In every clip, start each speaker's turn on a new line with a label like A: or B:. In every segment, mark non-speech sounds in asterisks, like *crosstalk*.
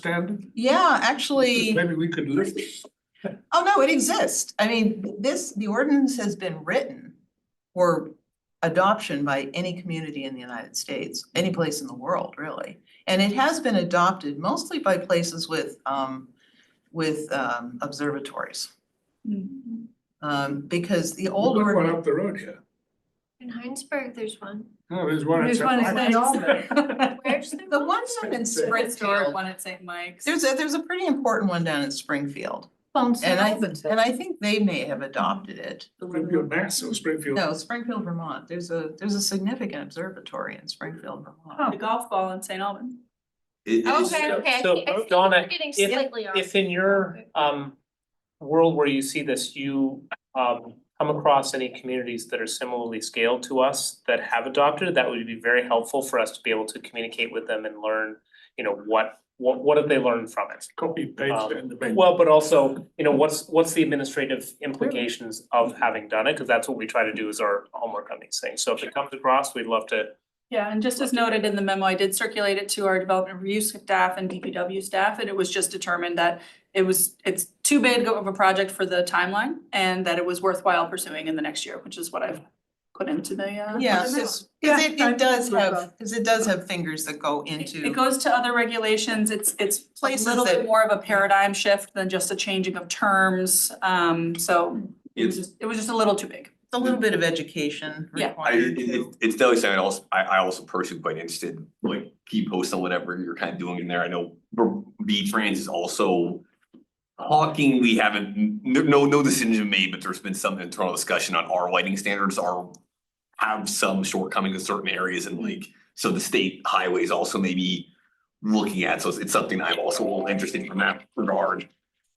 A: standard?
B: Yeah, actually,
A: Maybe we could lift it.
B: oh no, it exists. I mean, this, the ordinance has been written for adoption by any community in the United States, any place in the world, really. And it has been adopted mostly by places with um with um observatories.
C: Mm-hmm.
D: In
B: Um because the old
A: Look one
B: ordinance,
A: up the road here.
D: Heinsberg, there's one.
A: No, there's one. in
C: There's
A: St.
C: one
A: Michael's.
C: at *laughs* Albert.
D: Where's the?
B: the ones up in
C: Historic
B: Springfield,
C: one at St. Mike's.
B: there's a, there's a pretty important one down in Springfield.
D: Bones
B: And I, and I think they may have adopted it.
A: Springfield, Mass or Springfield.
B: No, Springfield, Vermont, there's a, there's a significant observatory in Springfield, Vermont.
C: The golf ball in St. Alban.
E: It is,
D: Okay, okay. I
F: So,
D: think- I think
F: Donna,
D: we're Getting
F: if-
D: slightly off.
F: If in your um world where you see this, you um come across any communities that are similarly scaled to us that have adopted, it, that would be very helpful for us to be able to communicate with them and learn, you know, what what what have they learned from it?
A: Copy paste it in the.
F: Um, well, but also, you know, what's what's the administrative implications of having done it? Cause that's what we try to do is our homework on these things. So if it comes across, we'd love to
C: Yeah, and just as noted in the memo, I did circulate it to our development review staff and DPW staff, and it was just determined that it was, it's too big of a project for the timeline and that it was worthwhile pursuing in the next year, which is what I've put into the uh.
B: Yeah, cause
C: Yeah,
B: it,
C: I
B: it does
C: think we're
B: have,
C: both.
B: cause it does have fingers that go
C: It- It
B: into,
C: goes to other regulations, it's it's a
B: Places
C: little
B: that-
C: bit more of a paradigm shift than just a changing of terms, um, so it was
E: It's-
C: just, it was just a little too big.
B: a little bit of education
C: Yeah.
E: I,
B: required
E: it,
B: too.
E: it- it's definitely something else, I, I also personally quite interested, like, keep posting whatever you're kind of doing in there, I know B Trans is also talking, we haven't, no, no, no decision made, but there's been some internal discussion on our lighting standards are have some shortcomings in certain areas and like, so the state highways also maybe looking at, so it's, it's something I'm also a little interested in that regard.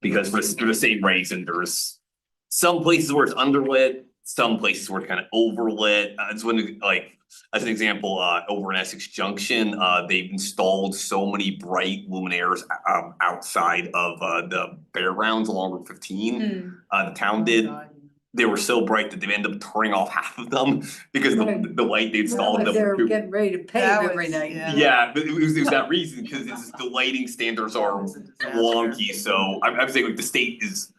E: Because for the, for the same reason, there's some places where it's underlit, some places where it's kind of overlit, uh, it's when, like, as an example, uh, over in Essex Junction, uh, they've installed so many bright luminaires, um, outside of, uh, the fairgrounds along Route
G: Mm.
E: fifteen. Uh, the town did, they were so bright that they ended up turning off half of them *laughs* because the,
G: Right.
E: the light they
G: Well,
E: installed.
G: but
E: them
G: They're
E: too.
G: getting ready to pave
B: That
G: every
B: was-
G: night.
B: yeah.
E: Yeah, but it was, it
B: *laughs*
E: was that reason, because it's, just the lighting standards are
B: It's a disaster.
E: wonky, so I'm, I'm saying like the state is.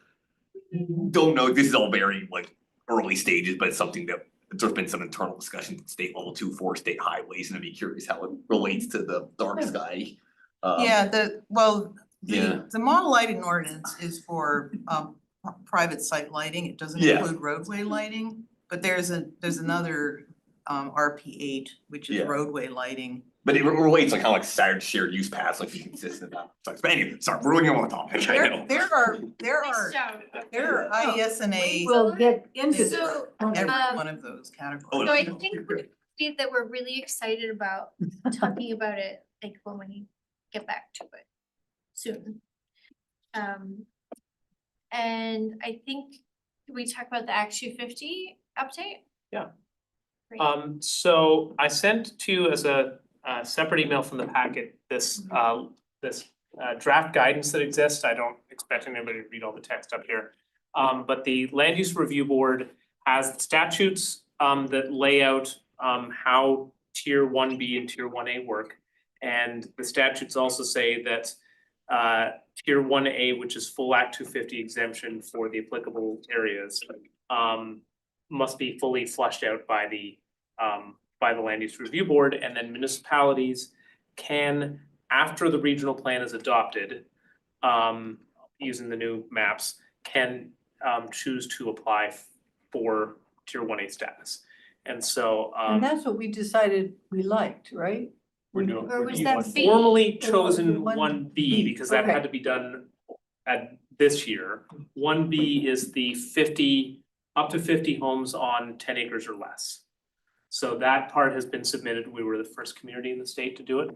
E: Don't know, this is all very like early stages, but it's something that, there's been some internal discussion at state level two for state highways, and I'd be curious how it relates to the dark sky. Um,
B: Yeah, the, well,
E: Yeah.
B: the, the model lighting ordinance is for, um, pri- private site lighting. It doesn't
E: Yeah.
B: include roadway lighting. But there's a, there's another, um, RP eight, which is
E: Yeah.
B: roadway lighting.
E: But it re- relates like how like shared, shared use paths, like if you consistent about, but anyway, sorry, we're looking on the topic, I
B: There,
E: know.
B: there are, there are,
D: Nice job.
B: there are E
G: Oh,
B: ISNA,
G: We'll get into
D: So,
B: every
G: that.
D: um,
B: one of those categories.
E: Oh,
D: So I
E: no.
D: think see that we're really excited *laughs* about talking about it, like when we get back to it soon. Um, and I think, did we talk about the Act two fifty update?
F: Yeah.
D: Great.
F: Um, so I sent to you as a, uh separate email from the packet, this, uh, this uh, draft guidance that exists. I don't expect anybody to read all the text up here. Um, but the Land Use Review Board has statutes, um, that lay out, um, how tier one B and tier one A work. And the statutes also say that, uh, tier one A, which is full Act two fifty exemption for the applicable areas, um, must be fully flushed out by the um by the land use review board and then municipalities can, after the regional plan is adopted, um using the new maps, can um choose to apply for tier one A status. And so
G: And
F: um
G: that's what we decided we liked, right?
F: we're doing,
D: Or
F: we're
D: was
F: doing
D: that
F: one-
D: B?
F: formally
G: Or
F: chosen
G: one
F: one B
G: B,
F: because that
G: okay.
F: had to be done at this year. One B is the fifty, up to fifty homes on ten acres or less. So that part has been submitted. We were the first community in the state to do it.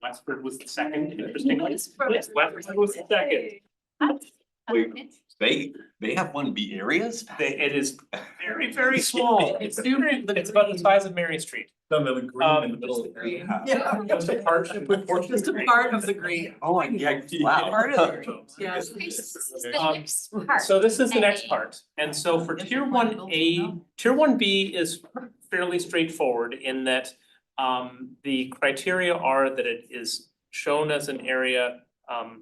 F: Westford was the second, interestingly. Westford was the second.
B: um,
E: Wait. They, they have one B areas?
F: They- It is very, very small. It's it's about the size of Mary Street.
E: Some of the
F: green in the middle of
E: the.
G: Yeah.
F: Just a partnership with Fortune
C: Just a
F: Creek.
C: part of the green.
E: Oh, my God. Wow.
B: Part of the green.
C: Yeah.
D: Okay, so this is the
F: Um,
D: next part.
F: So this is the
D: A.
F: next part, and so for
B: Different
F: tier
B: kind of
F: one
B: building,
F: A,
B: no?
F: tier one B is fairly straightforward in that um the criteria are that it is shown as an area Um,